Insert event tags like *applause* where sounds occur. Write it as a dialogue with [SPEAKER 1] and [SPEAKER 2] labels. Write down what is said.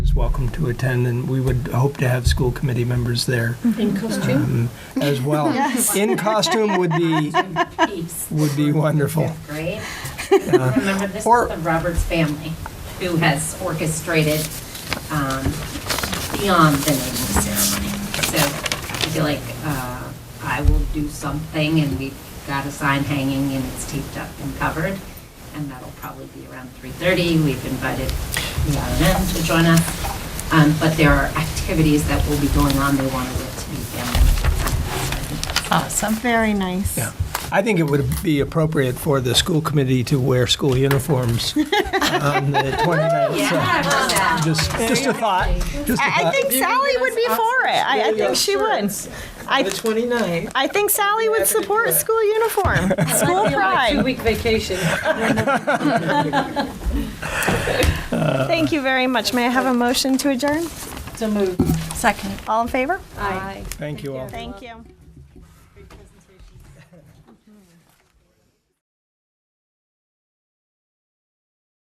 [SPEAKER 1] is welcome to attend, and we would hope to have school committee members there
[SPEAKER 2] In costume?
[SPEAKER 1] um, as well. In costume would be,
[SPEAKER 3] Peace.
[SPEAKER 1] would be wonderful.
[SPEAKER 3] Great. Remember, this is
[SPEAKER 1] or-
[SPEAKER 3] the Roberts family who has orchestrated um, beyond the naming ceremony. So I feel like uh, I will do something, and we've got a sign hanging, and it's taped up and covered, and that'll probably be around 3:30. We've invited the RNM to join us, Um, but there are activities that will be going on. They wanted it to be family.
[SPEAKER 4] Awesome.
[SPEAKER 2] Very nice.
[SPEAKER 1] Yeah. I think it would be appropriate for the school committee to wear school uniforms on
[SPEAKER 2] *laughs*
[SPEAKER 1] the 29th.
[SPEAKER 3] Yeah, I
[SPEAKER 1] so
[SPEAKER 3] love that.
[SPEAKER 1] Just, just a thought, just a
[SPEAKER 2] I, I
[SPEAKER 1] thought.
[SPEAKER 2] think Sally would be for it. I, I
[SPEAKER 5] Yeah,
[SPEAKER 2] think she
[SPEAKER 5] sure.
[SPEAKER 2] would. I,
[SPEAKER 5] The 29th.
[SPEAKER 2] I think Sally would support school *laughs* uniform, school pride.
[SPEAKER 5] Two-week vacation.
[SPEAKER 2] Thank you very much. May I have a motion to adjourn?
[SPEAKER 5] It's a move.
[SPEAKER 4] Second.
[SPEAKER 2] All in favor?
[SPEAKER 5] Aye.
[SPEAKER 1] Thank you all.
[SPEAKER 2] Thank you.